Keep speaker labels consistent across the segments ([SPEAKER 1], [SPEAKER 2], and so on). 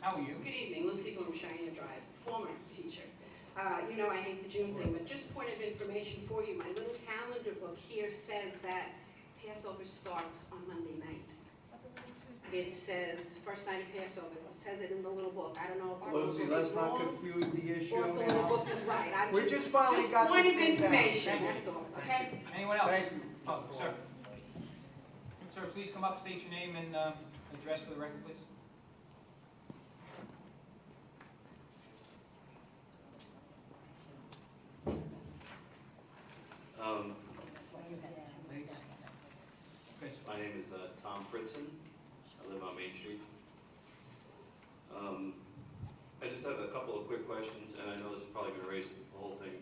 [SPEAKER 1] How are you?
[SPEAKER 2] Good evening, Lucy Bloom, Cheyenne Drive, former teacher. Uh, You know, I hate the June thing, but just point of information for you, my little calendar book here says that Passover starts on Monday night. It says, first night of Passover, it says it in the little book, I don't know if our little
[SPEAKER 3] Lucy,
[SPEAKER 2] book
[SPEAKER 3] let's
[SPEAKER 2] is
[SPEAKER 3] not
[SPEAKER 2] wrong
[SPEAKER 3] confuse the issue
[SPEAKER 2] or if the little
[SPEAKER 3] now.
[SPEAKER 2] book is right. I'm
[SPEAKER 3] We just finally
[SPEAKER 2] just
[SPEAKER 3] got this
[SPEAKER 2] point of
[SPEAKER 3] thing down.
[SPEAKER 2] information,
[SPEAKER 1] Thank you.
[SPEAKER 2] that's all, okay?
[SPEAKER 1] Anyone else?
[SPEAKER 3] Thank you.
[SPEAKER 1] Oh, sir. Sir, please come up, state your name and um, address for the record, please.
[SPEAKER 4] Um,
[SPEAKER 1] Chris.
[SPEAKER 4] My name is uh, Tom Fritzen. I live on Main Street. Um, I just have a couple of quick questions, and I know this is probably going to raise the whole thing.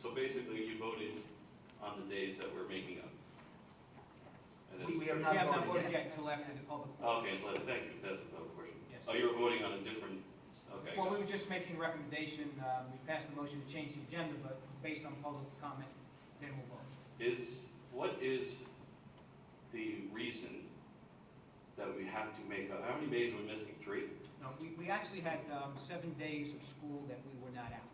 [SPEAKER 4] So basically, you voted on the days that we're making up. And it's-
[SPEAKER 5] We, we have
[SPEAKER 1] We have
[SPEAKER 5] not
[SPEAKER 1] not
[SPEAKER 5] voted yet.
[SPEAKER 1] voted yet until after the public.
[SPEAKER 4] Okay, let- thank you, that's another question.
[SPEAKER 1] Yes.
[SPEAKER 4] Oh, you were voting on a different, okay.
[SPEAKER 1] Well, we
[SPEAKER 4] got it.
[SPEAKER 1] were just making a recommendation, um, we passed the motion to change the agenda, but based on public comment, then we'll vote.
[SPEAKER 4] Is, what is the reason that we have to make up? How many days are we missing? Three?
[SPEAKER 1] No, we, we actually had um, seven days of school that we were not out.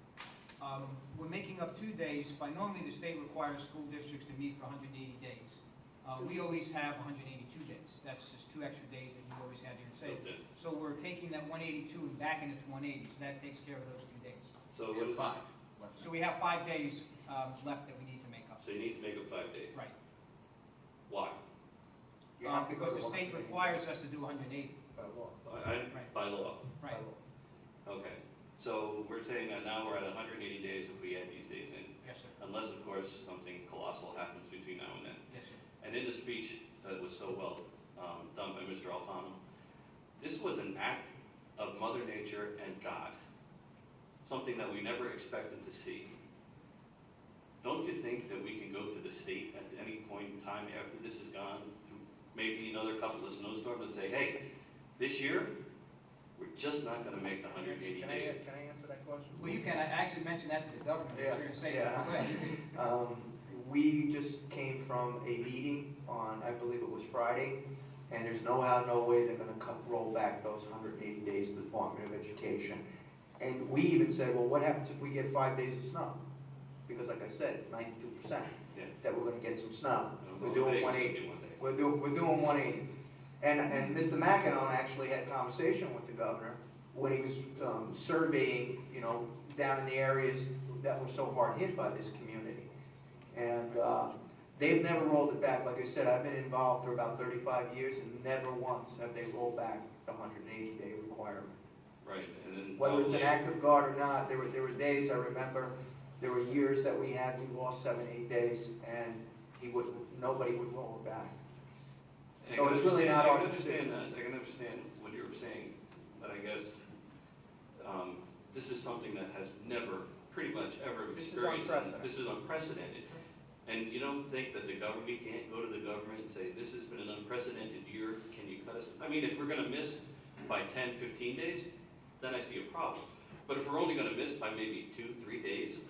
[SPEAKER 1] Um, We're making up two days, by normally the state requires school districts to meet for 180 days. Uh, We always have 182 days, that's just two extra days that we always had here in Salem.
[SPEAKER 4] Okay.
[SPEAKER 1] So we're taking that 182 and backing it to 180, so that takes care of those two days.
[SPEAKER 4] So what is?
[SPEAKER 5] Five. left.
[SPEAKER 1] So we have five days um, left that we need to make up.
[SPEAKER 4] So you need to make up five days.
[SPEAKER 1] Right.
[SPEAKER 4] Why?
[SPEAKER 3] You have
[SPEAKER 1] Um,
[SPEAKER 3] to go
[SPEAKER 1] Because
[SPEAKER 3] to
[SPEAKER 1] the
[SPEAKER 3] one
[SPEAKER 1] state
[SPEAKER 3] meeting
[SPEAKER 1] requires us to do 180,
[SPEAKER 3] by law,
[SPEAKER 4] I, I-
[SPEAKER 1] Right.
[SPEAKER 4] by law.
[SPEAKER 3] by
[SPEAKER 1] right?
[SPEAKER 3] law.
[SPEAKER 4] Okay. So we're saying that now we're at hundred and eighty days if we add these days in,
[SPEAKER 1] Yes, sir,
[SPEAKER 4] unless, of course, something colossal happens between now and then.
[SPEAKER 1] yes, sir.
[SPEAKER 4] And in the speech that was so well um, done by Mr. Alfano, this was an act of Mother Nature and God, something that we never expected to see. Don't you think that we can go to the state at any point in time after this is gone, through maybe another couple of snowstorms, and say, hey, this year, we're just not going to make the 180
[SPEAKER 3] Can I,
[SPEAKER 4] days?
[SPEAKER 3] can I answer that question?
[SPEAKER 1] Well, you can, I actually mentioned that to the governor, I was
[SPEAKER 3] Yeah,
[SPEAKER 1] going to say
[SPEAKER 3] yeah.
[SPEAKER 1] that. Go ahead.
[SPEAKER 3] Um, we just came from a meeting on, I believe it was Friday, and there's no how, no way they're gonna cut, roll back those hundred and eighty days to the Department of Education. And we even said, well, what happens if we get five days of snow? Because like I said, it's ninety-two percent
[SPEAKER 4] Yeah.
[SPEAKER 3] that we're gonna get some snow.
[SPEAKER 4] You know,
[SPEAKER 3] We're
[SPEAKER 4] well,
[SPEAKER 3] doing
[SPEAKER 4] Vegas
[SPEAKER 3] one
[SPEAKER 4] is
[SPEAKER 3] eighty.
[SPEAKER 4] doing one day.
[SPEAKER 3] We're doing, we're doing one eighty. And, and Mr. McEnon actually had a conversation with the governor when he was, um, surveying, you know, down in the areas that were so hard hit by this community. And, uh, they've never rolled it back. Like I said, I've been involved for about thirty-five years and never once have they rolled back the hundred and eighty day requirement.
[SPEAKER 4] Right, and then
[SPEAKER 3] Whether it's an
[SPEAKER 4] probably-
[SPEAKER 3] act of God or not, there were, there were days, I remember, there were years that we had, we lost seven, eight days and he wouldn't, nobody would roll it back.
[SPEAKER 4] And I
[SPEAKER 3] So
[SPEAKER 4] can
[SPEAKER 3] it's really
[SPEAKER 4] understand-
[SPEAKER 3] not
[SPEAKER 4] I
[SPEAKER 3] our
[SPEAKER 4] can understand
[SPEAKER 3] decision.
[SPEAKER 4] that, I can understand what you're saying, but I guess, um, this is something that has never, pretty much ever
[SPEAKER 3] This is
[SPEAKER 4] experienced. and
[SPEAKER 3] unprecedented.
[SPEAKER 4] This is unprecedented. And you don't think that the government, we can't go to the government and say, this has been an unprecedented year, can you cut us? I mean, if we're gonna miss by 10, 15 days, then I see a problem. But if we're only gonna miss by maybe two, three days,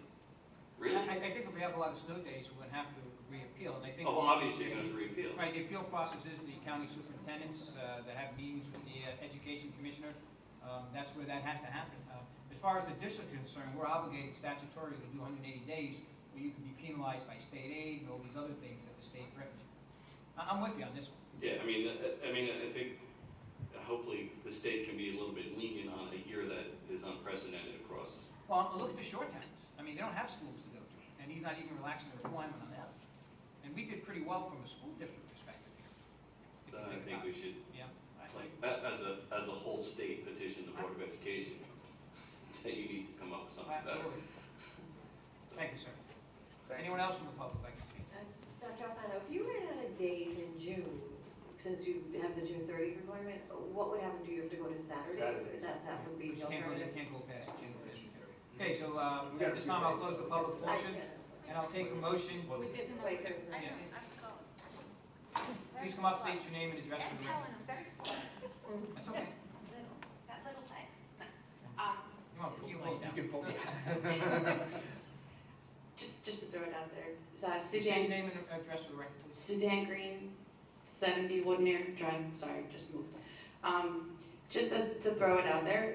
[SPEAKER 4] really?
[SPEAKER 1] I, I think if we have a lot of snow days, we're gonna have to reappeal, and I think.
[SPEAKER 4] Oh, well, obviously, you're gonna repeal.
[SPEAKER 1] Right, the appeal process is the county superintendents, uh, that have meetings with the uh, education commissioner, um, that's where that has to happen. Uh, As far as the district is concerned, we're obligated statutorily to do hundred and eighty days, where you can be penalized by state aid and all these other things that the state threatens. I, I'm with you on this one.
[SPEAKER 4] Yeah, I mean, I- I mean, I think hopefully the state can be a little bit lenient on a year that is unprecedented across.
[SPEAKER 1] Well, look at the short towns, I mean, they don't have schools to go to, and he's not even relaxing the requirement on that. And we did pretty well from a school district perspective here. if you
[SPEAKER 4] Then Uh, I
[SPEAKER 1] about
[SPEAKER 4] think we
[SPEAKER 1] it.
[SPEAKER 4] should,
[SPEAKER 1] Yeah. I-
[SPEAKER 4] like, a- as a, as a whole state petition the Board of Education, say you need to come up with something better.
[SPEAKER 1] Absolutely. Thank you, sir. Anyone else from the public like to speak?
[SPEAKER 6] Dr. Alfano, if you ran out of days in June, since you have the June 30th requirement, what would happen? Do you have to go to Saturdays?
[SPEAKER 3] Saturdays.
[SPEAKER 6] Is that, that would be
[SPEAKER 1] Which
[SPEAKER 6] the
[SPEAKER 1] can't go,
[SPEAKER 6] alternative?
[SPEAKER 1] can't go past the general business area. Okay, so, uh, at this time, I'll close the public
[SPEAKER 6] I-
[SPEAKER 1] portion, and I'll take a motion.
[SPEAKER 5] Well,
[SPEAKER 7] There's another.
[SPEAKER 6] Wait, there's
[SPEAKER 7] I
[SPEAKER 6] another.
[SPEAKER 7] know, I'm going.
[SPEAKER 1] Please come up, state your name and address for the
[SPEAKER 7] Helen,
[SPEAKER 1] record.
[SPEAKER 7] I'm very sorry.
[SPEAKER 1] That's okay.
[SPEAKER 7] That little thing.
[SPEAKER 2] Um,
[SPEAKER 1] Come on, you hold down.
[SPEAKER 5] You can pull me.
[SPEAKER 8] Just, just to throw it out there, So, uh,
[SPEAKER 1] State your
[SPEAKER 8] Suzanne,
[SPEAKER 1] name and address for the record.
[SPEAKER 8] Suzanne Green, 70 Woodmere Drive, sorry, just moved. Um, Just as, to throw it out there,